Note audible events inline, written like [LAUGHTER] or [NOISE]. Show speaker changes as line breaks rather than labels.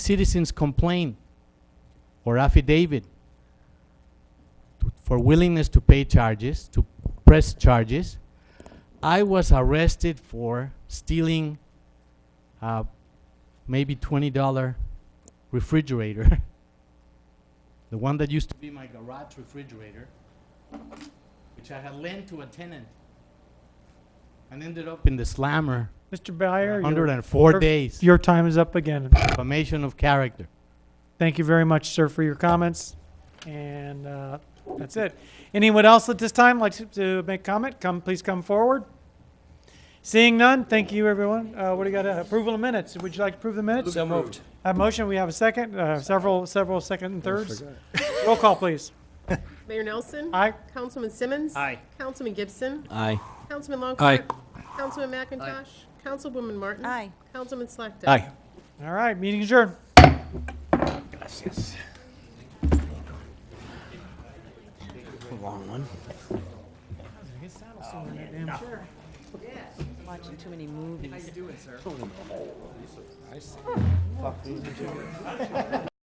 citizens' complaint or affidavit for willingness to pay charges, to press charges. I was arrested for stealing uh, maybe $20 refrigerator, [LAUGHS] the one that used to be my garage refrigerator, which I had lent to a tenant and ended up in the slammer
Mr.
for
Byer, your-
104
your-
days.
your time is up again.
Formation of character.
Thank you very much, sir, for your comments. And uh, that's it. Anyone else at this time like to- to make comment? Come, please come forward. Seeing none, thank you, everyone. Uh, What do you got? uh, Approval of minutes. Would you like to approve the minutes?
So moved.
A motion, we have a second, uh, several, several second and thirds. Roll call, please.
Mayor Nelson.
Aye.
Councilman Simmons.
Aye.
Councilman Gibson.
Aye.
Councilman
Aye.
Longcor. Councilman McIntosh. Councilwoman Martin.
Aye.
Councilman Slackton.
Aye.
All right, meeting adjourned.
Long one.
Watching too many movies.